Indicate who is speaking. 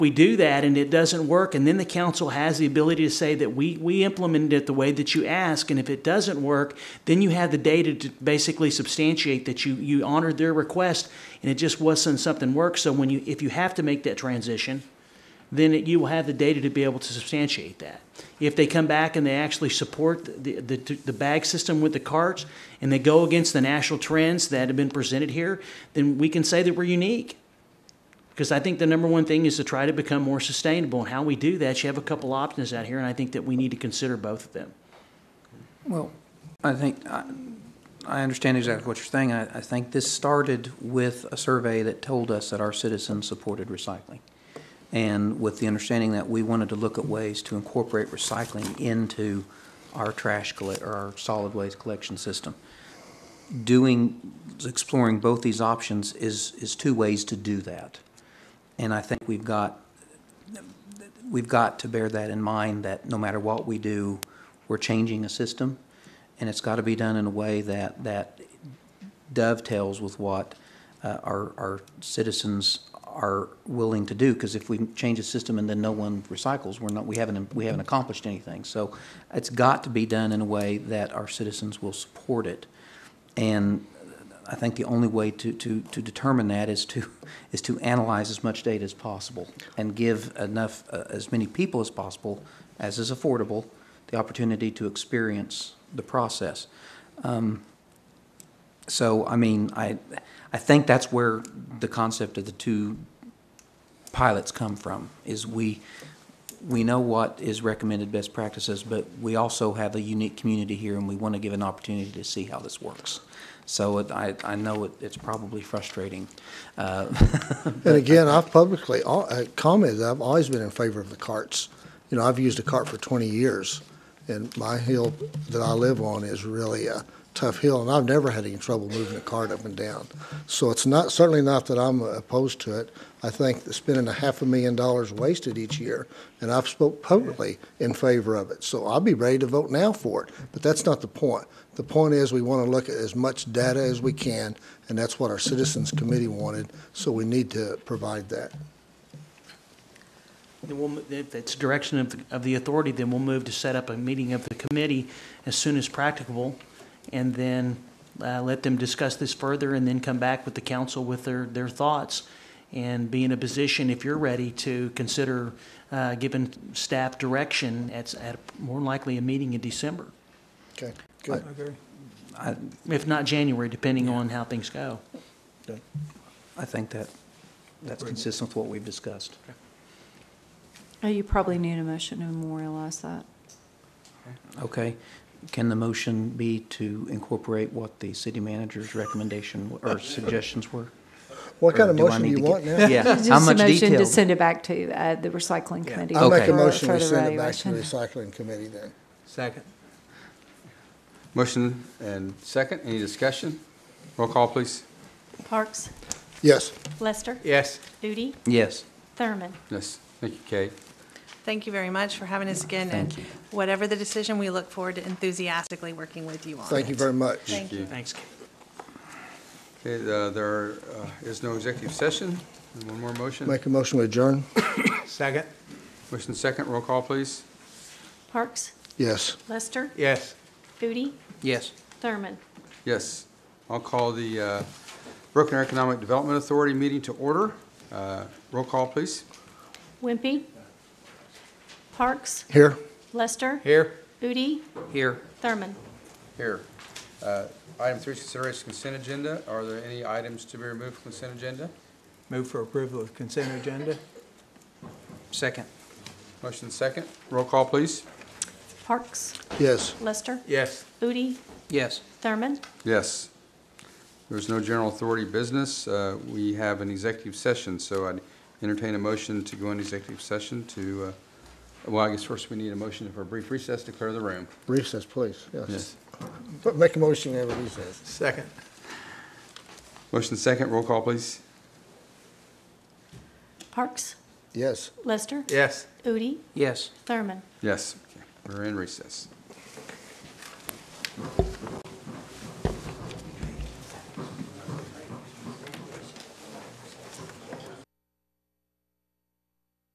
Speaker 1: we do that and it doesn't work, and then the council has the ability to say that we, we implemented it the way that you ask, and if it doesn't work, then you have the data to basically substantiate that you, you honored their request and it just wasn't something work. So when you, if you have to make that transition, then it, you will have the data to be able to substantiate that. If they come back and they actually support the, the, the bag system with the carts and they go against the national trends that have been presented here, then we can say that we're unique. Because I think the number one thing is to try to become more sustainable. And how we do that, you have a couple options out here, and I think that we need to consider both of them.
Speaker 2: Well, I think, I I understand exactly what you're saying. I I think this started with a survey that told us that our citizens supported recycling. And with the understanding that we wanted to look at ways to incorporate recycling into our trash, colle- or our solid waste collection system. Doing, exploring both these options is, is two ways to do that. And I think we've got we've got to bear that in mind, that no matter what we do, we're changing a system, and it's got to be done in a way that, that dovetails with what uh, our, our citizens are willing to do, because if we change a system and then no one recycles, we're not, we haven't, we haven't accomplished anything. So it's got to be done in a way that our citizens will support it. And I think the only way to, to, to determine that is to, is to analyze as much data as possible and give enough, uh, as many people as possible, as is affordable, the opportunity to experience the process. Um, So, I mean, I, I think that's where the concept of the two pilots come from, is we, we know what is recommended best practices, but we also have a unique community here, and we want to give an opportunity to see how this works. So it- I, I know it- it's probably frustrating. Uh,
Speaker 3: And again, I've publicly al- uh, commented, that I've always been in favor of the carts. You know, I've used a cart for twenty years, and my hill that I live on is really a tough hill, and I've never had any trouble moving a cart up and down. So it's not, certainly not that I'm opposed to it. I think that spending a half a million dollars wasted each year, and I've spoke publicly in favor of it. So I'll be ready to vote now for it, but that's not the point. The point is, we want to look at as much data as we can, and that's what our Citizens Committee wanted, so we need to provide that.
Speaker 1: Then we'll, mo- if it's direction of, the- of the authority, then we'll move to set up a meeting of the committee as soon as practicable, and then uh, let them discuss this further, and then come back with the council with their, their thoughts, and be in a position, if you're ready, to consider uh, giving staff direction at, s- at more than likely a meeting in December,
Speaker 3: Okay, good.
Speaker 1: if not January, depending on how things go.
Speaker 2: I think that, that's consistent with what we've discussed.
Speaker 4: Oh, You probably need a motion to memorialize that.
Speaker 2: Okay, can the motion be to incorporate what the city manager's recommendation or suggestions were?
Speaker 3: What kind
Speaker 2: Or
Speaker 3: of
Speaker 2: do I
Speaker 3: motion do
Speaker 2: need
Speaker 3: you
Speaker 2: to
Speaker 3: want
Speaker 2: get-
Speaker 3: now?
Speaker 2: Yeah,
Speaker 4: Just
Speaker 2: how
Speaker 4: a
Speaker 2: much
Speaker 4: motion to
Speaker 2: detail?
Speaker 4: send it back to uh, the recycling committee.
Speaker 3: I'll make
Speaker 2: Okay.
Speaker 3: a
Speaker 4: for
Speaker 3: motion, we
Speaker 4: further
Speaker 3: send it back to the
Speaker 4: evaluation.
Speaker 3: Recycling Committee then.
Speaker 5: Second. Motion and second, any discussion? Roll call, please.
Speaker 6: Parks,
Speaker 3: Yes,
Speaker 6: Lester,
Speaker 5: Yes.
Speaker 6: Udi,
Speaker 2: Yes,
Speaker 6: Thurman.
Speaker 5: Yes, thank you, Kate.
Speaker 7: Thank you very much for having us again, and whatever the decision, we look forward to enthusiastically working with you on it.
Speaker 3: thank you very much.
Speaker 7: Thank you.
Speaker 1: Thanks.
Speaker 5: Okay, uh, there uh, is no executive session. And One more motion.
Speaker 3: Make a motion to adjourn?
Speaker 5: Second. Motion second, roll call, please.
Speaker 6: Parks,
Speaker 3: Yes.
Speaker 6: Lester,
Speaker 5: Yes.
Speaker 6: Udi,
Speaker 2: yes.
Speaker 6: Thurman.
Speaker 5: Yes. I'll call the uh, Broken Arrow Economic Development Authority meeting to order. Uh, Roll call, please.
Speaker 6: Wimpy. Parks,
Speaker 3: Here?
Speaker 6: Lester,
Speaker 5: Here.
Speaker 6: Udi,
Speaker 2: Here.
Speaker 6: Thurman.
Speaker 5: Here. Uh, Item three, is consideration consent agenda. Are there any items to be removed from consent agenda?
Speaker 8: Move for approval of consent agenda?
Speaker 2: Second.
Speaker 5: Motion second, roll call, please.
Speaker 6: Parks,
Speaker 3: Yes.
Speaker 6: Lester,
Speaker 8: Yes.
Speaker 6: Udi,
Speaker 2: Yes.
Speaker 6: Thurman.
Speaker 5: Yes. There's no general authority business. Uh, We have an executive session, so I'd entertain a motion to go into executive session to, uh, well, I guess first we need a motion for a brief recess, to clear the room.
Speaker 3: Recess, please, yes. But Make a motion to have a recess.
Speaker 8: Second.
Speaker 5: Motion second, roll call, please.
Speaker 6: Parks,
Speaker 3: Yes.
Speaker 6: Lester,
Speaker 8: Yes.
Speaker 6: Udi,
Speaker 2: Yes.
Speaker 6: Thurman.
Speaker 5: Yes. Okay. We're in recess.